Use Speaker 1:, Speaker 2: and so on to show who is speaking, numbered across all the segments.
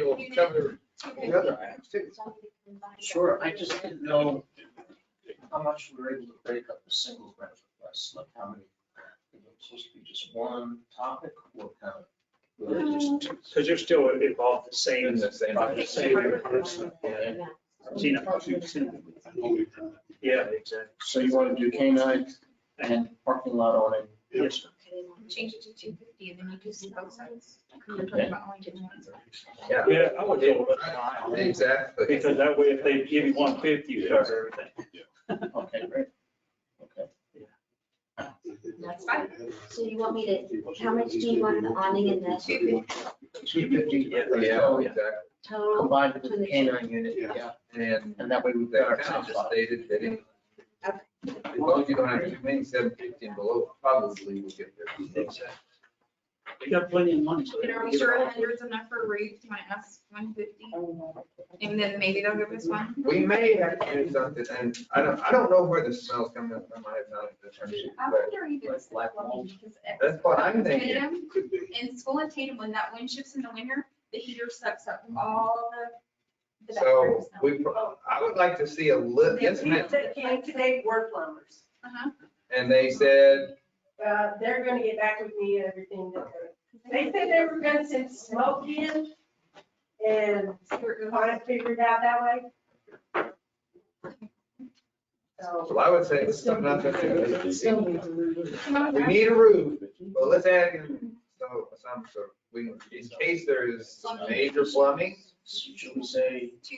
Speaker 1: you
Speaker 2: cover
Speaker 1: Okay.
Speaker 2: the other items too.
Speaker 3: Sure, I just didn't know how much we were able to break up a single grant request, like how many. Is it supposed to be just one topic or kind of? really just two?
Speaker 4: Because you're still involved the same.
Speaker 5: In the same-
Speaker 4: project, same person. Yeah. Tina. Yeah, exactly.
Speaker 3: So you want to do canine and parking lot on it?
Speaker 4: Yes, sir.
Speaker 1: Change it to two fifty and then you do some outsides.
Speaker 3: Okay.
Speaker 5: Yeah,
Speaker 4: Yeah, I would deal with it.
Speaker 5: exactly.
Speaker 4: Because that way, if they give you one fifty, you cover everything.
Speaker 3: Okay, great. Okay.
Speaker 1: That's fine.
Speaker 6: So you want me to, how much do you want the awning and the
Speaker 1: Two
Speaker 3: Two fifty.
Speaker 4: Yeah,
Speaker 5: Yeah, exactly.
Speaker 6: total?
Speaker 3: Combined with the canine unit, yeah.
Speaker 5: And
Speaker 3: And that way we've got
Speaker 5: that
Speaker 3: our
Speaker 5: kind of
Speaker 3: top
Speaker 5: just
Speaker 3: spot.
Speaker 5: stated that it- as long as you don't have too many seven fifty and below, probably we'll get there.
Speaker 4: Exactly. You got plenty of money. so
Speaker 1: And are we
Speaker 4: give it
Speaker 1: sure
Speaker 4: all.
Speaker 1: a hundred's enough for Reeves? Can I ask one fifty? And then maybe they'll give us one.
Speaker 5: We may have to do something, and I don't, I don't know where the smell's coming from, I have not determined,
Speaker 1: I
Speaker 5: but
Speaker 1: wonder if it's like, well, because it's
Speaker 5: that's what I'm thinking.
Speaker 1: Tatum, in school at Tatum, when that wind shifts in the winter, the heater sucks up all the. the
Speaker 5: So
Speaker 1: bacteria smell.
Speaker 5: we, pro- I would like to see a lit, yes, ma'am.
Speaker 7: Like today, work plumbers.
Speaker 1: Uh-huh.
Speaker 5: And they said,
Speaker 7: Uh, they're gonna get back with me and everything. that they're- They said they were gonna send smoke in and kind of figure it out that way. So,
Speaker 5: well, I would say it's something not to do. We need a roof, but let's add in so some sort, of- we, in case there is major plumbing,
Speaker 3: Should we say
Speaker 1: Two,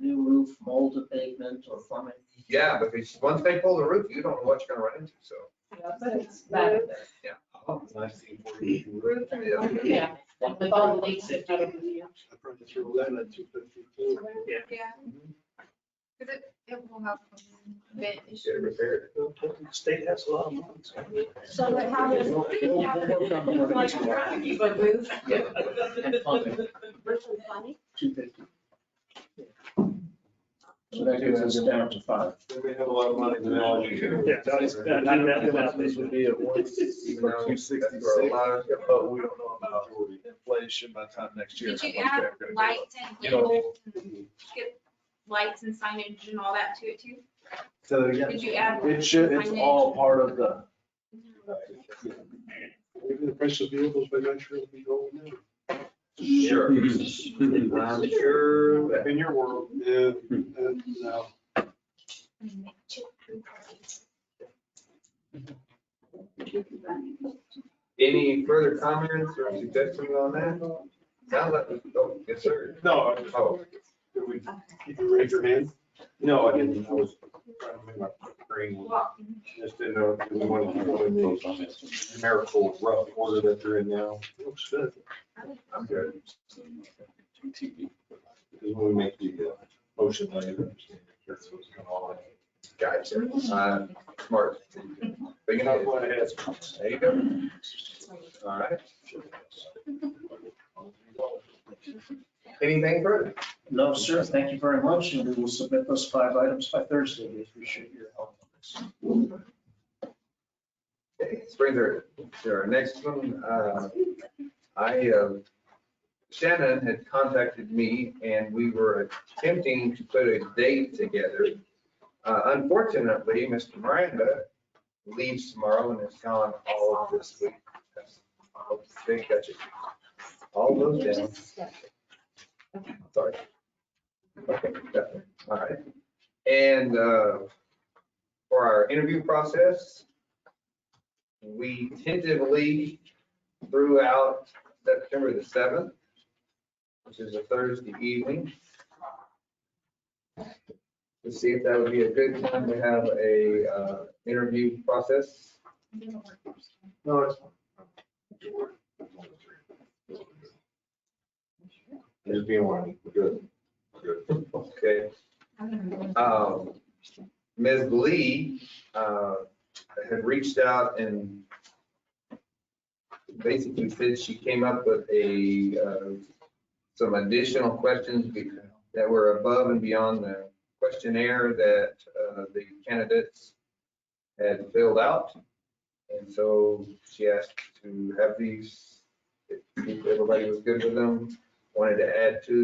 Speaker 3: new roof, mold abatement or plumbing?
Speaker 5: yeah, because once they pull the roof, you don't know what you're gonna run into, so.
Speaker 7: you know, but it's bad.
Speaker 1: roof and
Speaker 5: Yeah.
Speaker 1: one-
Speaker 8: Yeah, with all the leaks that are.
Speaker 1: Yeah. Because it, it will help. with vent
Speaker 5: You should have
Speaker 1: issues.
Speaker 5: repaired
Speaker 4: State has a lot of money. so-
Speaker 6: So what happens?
Speaker 3: Yeah. And plumbing, two fifty. So that gives us down to five.
Speaker 2: They have a lot of money now.
Speaker 4: Yeah, that is- that- that-
Speaker 2: This would be at one sixty-six,
Speaker 5: That's where a lot of-
Speaker 2: but we don't know about inflation by the time next year.
Speaker 1: Did you add lights and
Speaker 5: You don't-
Speaker 1: labels and get lights and signage and all that to it too?
Speaker 2: So, yeah,
Speaker 1: Did you add?
Speaker 2: it should, it's all part of the.
Speaker 9: Maybe the price of vehicles by next year will be going down.
Speaker 5: it. Sure.
Speaker 2: I'm
Speaker 5: I'm sure that-
Speaker 9: In your world, Hmm. yeah, and now,
Speaker 5: Any further comments or suggestions on that? Sounds like, we- oh, yes, sir.
Speaker 9: no, uh,
Speaker 5: Oh,
Speaker 9: did we- did you raise your hand? No, I didn't, I was trying to make my brain,
Speaker 1: Well,
Speaker 9: just didn't know if we wanted to go in those on this numerical rough order that they're in now. Looks good.
Speaker 5: I'm good.
Speaker 9: Because when we make the uh, motion, I understand. That's what's going on.
Speaker 5: Gotcha. Uh, Smart. Big
Speaker 9: That's
Speaker 5: enough.
Speaker 9: what I asked.
Speaker 5: There you go. All right. Anything further?
Speaker 3: No, sir, thank you very much, and we will submit those five items by Thursday. We appreciate your help.
Speaker 5: Okay, Let's bring their, their next one. Uh, I, uh, Shannon had contacted me and we were attempting to put a date together. Uh, Unfortunately, Mr. Miranda leaves tomorrow and is gone all of this week. That's- oh, Big catch it. All those down. Sorry. Okay, got it. all right. And uh, for our interview process, we tentatively threw out September the seventh, which is a Thursday evening. To see if that would be a good time to have a uh, interview process.
Speaker 9: No, it's. Just being one, we're good, we're good.
Speaker 5: Okay. Um, Ms. Lee uh, had reached out and basically said she came up with a, uh, some additional questions be- that were above and beyond the questionnaire that uh, the candidates had filled out. And so she asked to have these, if everybody was good with them, wanted to add to